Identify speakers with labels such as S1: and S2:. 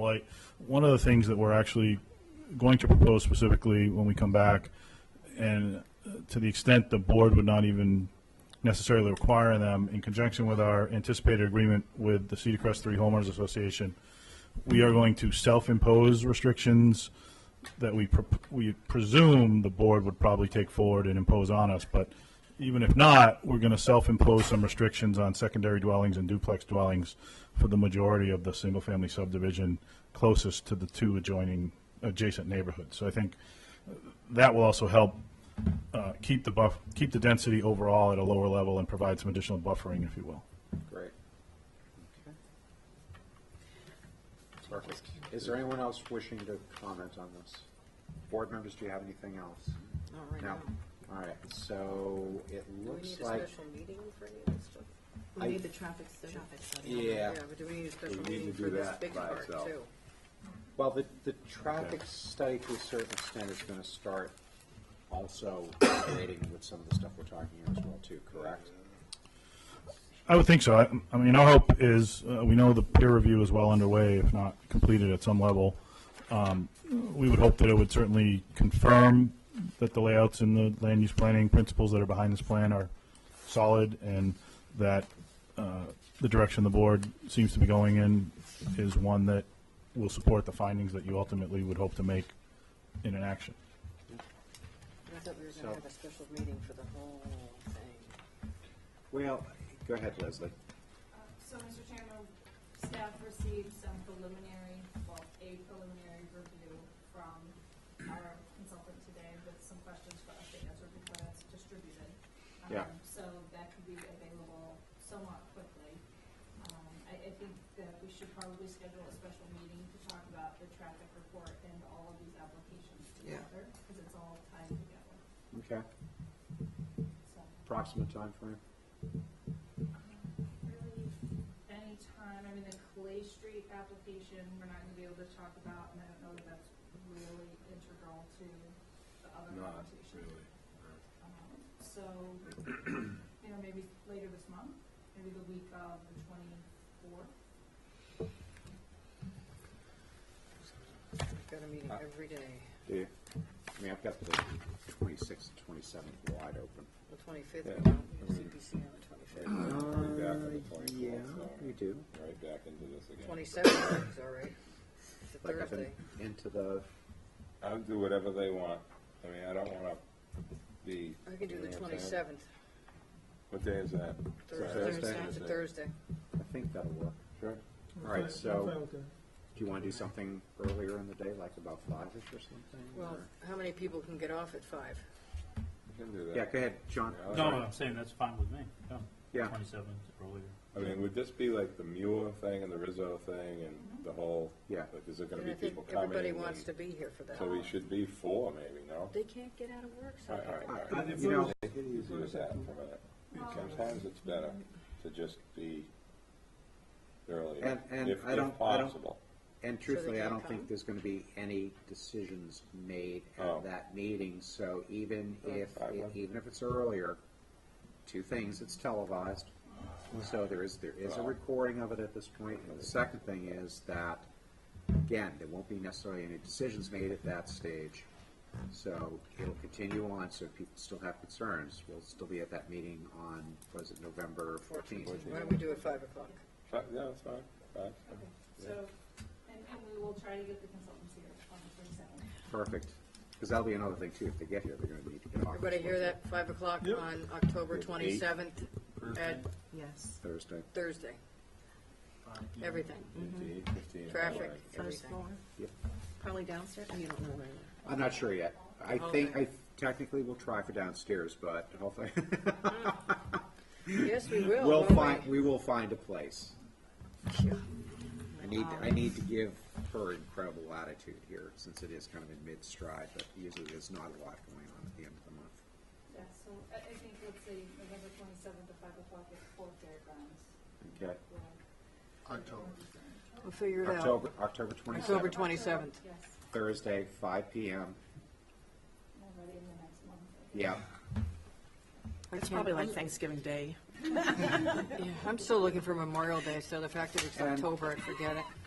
S1: light. One of the things that we're actually going to propose specifically when we come back, and uh, to the extent the board would not even necessarily require them, in conjunction with our anticipated agreement with the Cedar Crest Three Homeowners Association, we are going to self-impose restrictions that we, pre- we presume the board would probably take forward and impose on us, but even if not, we're going to self-impose some restrictions on secondary dwellings and duplex dwellings for the majority of the single-family subdivision closest to the two adjoining, adjacent neighborhoods. So I think that will also help uh, keep the buff, keep the density overall at a lower level and provide some additional buffering, if you will.
S2: Great. Perfect. Is there anyone else wishing to comment on this? Board members, do you have anything else?
S3: Not right
S2: No.
S3: now.
S2: All right, so it
S3: Do we need
S2: looks
S3: a
S2: like
S3: special meeting for any of this stuff?
S2: I-
S4: We need the traffic study.
S2: Yeah.
S3: but do we need a
S2: We
S3: special
S2: need to
S3: meeting
S2: do
S3: for this
S2: that
S3: big
S2: by
S3: part
S2: itself.
S3: too?
S2: Well, the, the traffic study to a certain extent is gonna start also relating with some of the stuff we're talking here as well too, correct?
S1: I would think so. I, I mean, our hope is, uh, we know the peer review is well underway, if not completed at some level. Um, we would hope that it would certainly confirm that the layouts and the land use planning principles that are behind this plan are solid and that, uh, the direction the board seems to be going in is one that will support the findings that you ultimately would hope to make in an action.
S3: I thought we were
S2: So-
S3: gonna have a special meeting for the whole thing.
S2: Well, go ahead, Leslie.
S5: So, Mr. Chairman, staff received some preliminary, well, a preliminary review from our consultant today with some questions for us to answer before that's distributed. Um,
S2: Yeah.
S5: So that could be available somewhat quickly. Um, I, I think that we should probably schedule a special meeting to talk about the traffic report and all of these applications
S3: Yeah.
S5: together, because it's all tied together,
S2: Okay,
S5: so.
S2: approximate time frame.
S5: really any time, I mean, the Clay Street application, we're not gonna be able to talk about, and I don't know that that's really integral to the other
S2: Not
S5: application. Um, So, you know, maybe later this month, maybe the week of the twenty-fourth.
S3: We've got a
S2: Uh,
S3: meeting every day,
S2: Do you? I mean, I've got the twenty-sixth, twenty-seventh wide open.
S3: the twenty-fifth,
S2: Yeah. Mm-hmm.
S3: we don't, we have CPC on the twenty-fifth.
S2: yeah, we do.
S6: right back into this again.
S3: Twenty-seventh is all right, it's a
S2: Like up in-
S3: Thursday.
S2: into the,
S6: I'll do whatever they want. I mean, I don't wanna be.
S3: I can do
S6: you
S3: the
S6: know what I'm saying?
S3: twenty-seventh,
S6: What day is that?
S3: Thursday,
S2: Thursday.
S3: it's a Thursday.
S2: I think that'll work.
S6: Sure.
S2: All right, so, do you want to do something earlier in the day, like about five-ish or something?
S3: Well,
S2: or-
S3: how many people can get off at five?
S6: I can do that.
S2: Yeah, go ahead, John.
S6: Yeah, I'll-
S7: No, I'm saying that's fine with me, yeah.
S2: Yeah.
S7: Twenty-seventh earlier.
S6: I mean, would this be like the Mueller thing and the Rizzo thing and the whole?
S2: Yeah.
S6: Like, is there
S3: And
S6: gonna
S3: I
S6: be
S3: think
S6: people coming?
S3: everybody
S6: and-
S3: wants to be here for that.
S6: So we should be four, maybe, no?
S3: They can't get out of work, so.
S6: All right, all right, all right.
S2: I- Uh, You know,
S6: Take it easy with that for a minute. Sometimes it's better to just be earlier.
S2: And- and
S6: if-
S2: I don't-
S6: If
S2: I don't-
S6: possible.
S2: and truthfully, I
S3: can't
S2: don't think
S3: come?
S2: there's going to be any decisions made
S6: Oh.
S2: at that meeting, so even if, e,
S6: I would.
S2: even if it's earlier, two things, it's televised. So there is, there is a recording of it at this point. And the second thing is that, again, there won't be necessarily any decisions made at that stage. So it'll continue on, so if people still have concerns, we'll still be at that meeting on, was it November fourteenth?
S3: Why don't we do it five o'clock?
S6: Fi- Yeah, that's fine, fine.
S5: Okay. So, and, and we will try to get the consultants here on the twenty-seventh.
S2: Perfect, because that'll be another thing too, if they get here, they're gonna need to get off.
S3: Everybody hear that, five o'clock on October
S2: Eight.
S3: twenty-seventh at
S4: Yes,
S2: Thursday.
S3: Thursday, everything,
S6: Fifteen, fifteen.
S3: Mm-hmm. traffic,
S6: alright.
S4: first
S3: everything.
S4: floor.
S2: Yep.
S4: Probably downstairs, you don't know where. yet.
S2: I'm not sure yet. I
S3: whole
S2: think,
S3: thing.
S2: I technically will try for downstairs, but hopefully,
S3: Yes, we will,
S2: we'll
S3: won't we?
S2: find, we will find a place. I need, I need to give her incredible latitude here, since it is kind of in mid-stride, but usually there's not a lot going on at the end of the month.
S5: Yeah, so I, I think, let's say, November twenty-seventh at five o'clock at Fort Fairgrounds.
S2: Okay.
S3: We'll figure it out.
S2: October, October
S3: October
S2: twenty-seventh,
S3: twenty-seventh.
S5: Yes,
S2: Thursday, five PM.
S5: already in the next month. I think.
S2: Yeah,
S4: It's probably like Thanksgiving Day.
S3: Yeah, I'm still looking for Memorial Day, so the fact that it's
S2: And-
S3: October, I forget it.